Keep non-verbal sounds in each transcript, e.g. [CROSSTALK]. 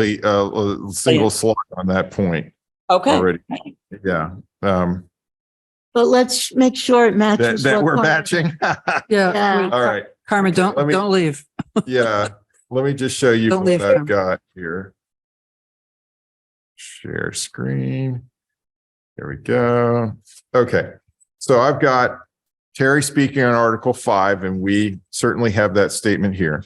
a, a single slot on that point Okay, already. Yeah, um, But let's make sure it that, matches. that what we're part- matching. [LAUGHS] All Yeah, Yeah, right, Carmen, don't, Let me- don't leave. yeah, let me just show you Don't what leave I've him. got here. Share screen. There we go. Okay, so I've got Terry speaking on Article five, and we certainly have that statement here.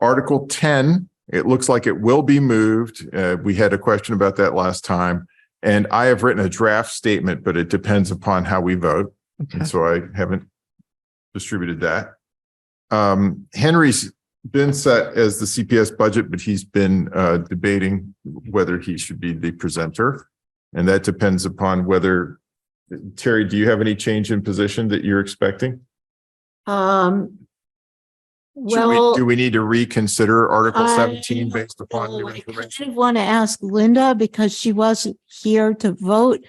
Article ten, it looks like it will be moved. Uh, we had a question about that last time. And I have written a draft statement, but it depends upon how we vote. And so I haven't distributed that. Um, Henry's been set as the CPS budget, but he's been, uh, debating whether he should be the presenter. And that depends upon whether, Terry, do you have any change in position that you're expecting? um. Should we- Well. Do we need to reconsider Article I- seventeen based upon new I information? kind of want to ask Linda because she wasn't here to vote.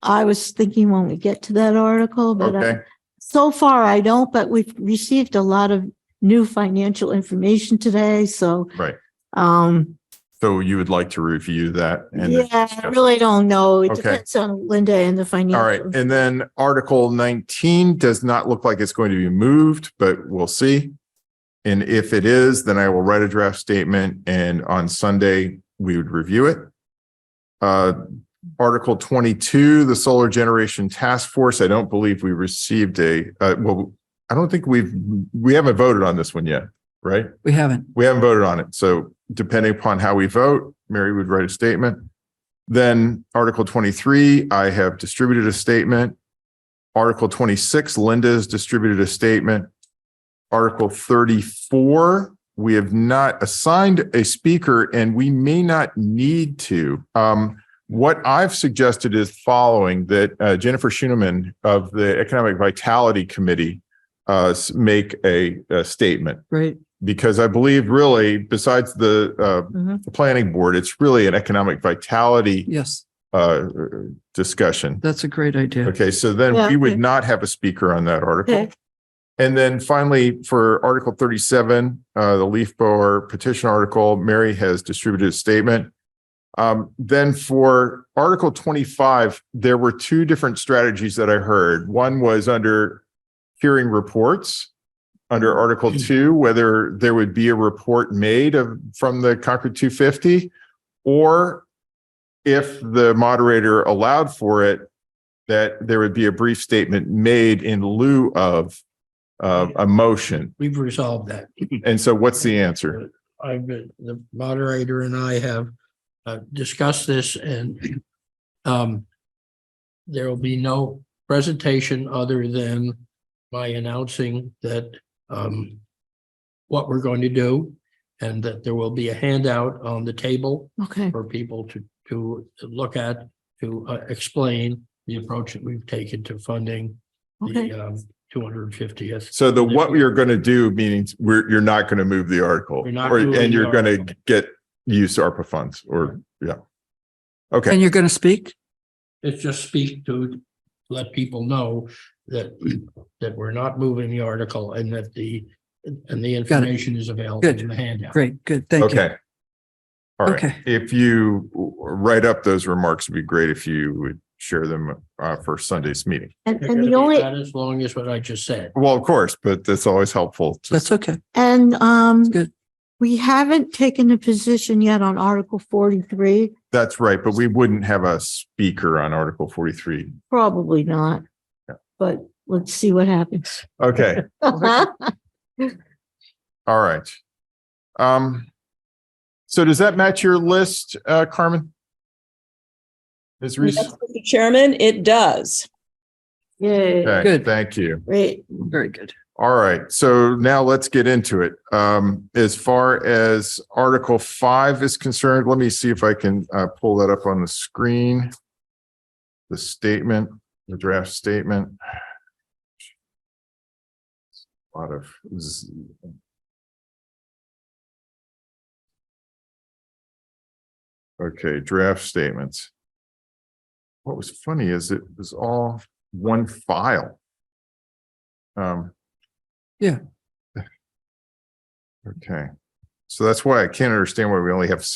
I was thinking when we get to that article, but uh, Okay, so far I don't, but we've received a lot of new financial information today, so. Right. Um, so you would like to review that? and then yeah, I discuss it. really don't know. It Okay. depends on Linda and the financial. All right, and then Article nineteen does not look like it's going to be moved, but we'll see. And if it is, then I will write a draft statement and on Sunday, we would review it. Uh, Article twenty-two, the Solar Generation Task Force, I don't believe we received a, uh, well, I don't think we've, we haven't voted on this one yet, right? We haven't. We haven't voted on it. So depending upon how we vote, Mary would write a statement. Then Article 23, I have distributed a statement. Article 26, Linda's distributed a statement. Article 34, we have not assigned a speaker and we may not need to. Um, what I've suggested is following that uh, Jennifer Schuneman of the Economic Vitality Committee uh, s- make a, a statement Great. because I believe really, besides the uh, Mhm. the planning board, it's really an economic vitality Yes, uh, discussion. that's a great idea. Okay, so then Yeah, we would okay. not have a speaker on that article. Okay. And then finally, for Article thirty-seven, uh, the leaf blower petition article, Mary has distributed a statement. Um, Then for Article twenty-five, there were two different strategies that I heard. One was under hearing reports under Article Two, whether there would be a report made of, from the Concord two fifty, or if the moderator allowed for it, that there would be a brief statement made in lieu of uh, a motion. We've resolved that. And so what's the answer? I've been, the moderator and I have uh, discussed this and um, there will be no presentation other than my announcing that um, what we're going to do and that there will be a handout on the table Okay, for people to, to look at, to uh, explain the approach that we've taken to funding uh, okay. the um, two hundred and fiftieth So the what we are going to do means we're, you're not going to move the article. We're not or- moving And the you're going to article. get use ARPA funds or, yeah. Okay, And you're going to speak? It's just speak to let people know that, that we're not moving the article and that the, and the information is available Good. in the handout. Great, good. Thank you. okay. All right, Okay. if you write up those remarks, it'd be great if you would share them uh, for Sunday's meeting. And, They're and the gonna be only, Not as long as what I just said. Well, of course, but that's always helpful. to- That's okay. and, um, good. we haven't taken a position yet on Article forty-three. That's right, but we wouldn't have a speaker on Article forty-three. Probably not. Yeah. But let's see what happens. Okay. All right. Um, so does that match your list, uh, Carmen? Ms. Reese? Yes, Mr. Chairman, it does. [LAUGHS] Yay, Okay, Good. Thank you. great. Very good. All right. So now let's get into it. Um, as far as Article Five is concerned, let me see if I can, uh, pull that up on the screen. The statement, the draft statement. A Lot of z- Okay, draft statements. What was funny is it was all one file. Um. Yeah. Okay, So that's why I can't understand why we only have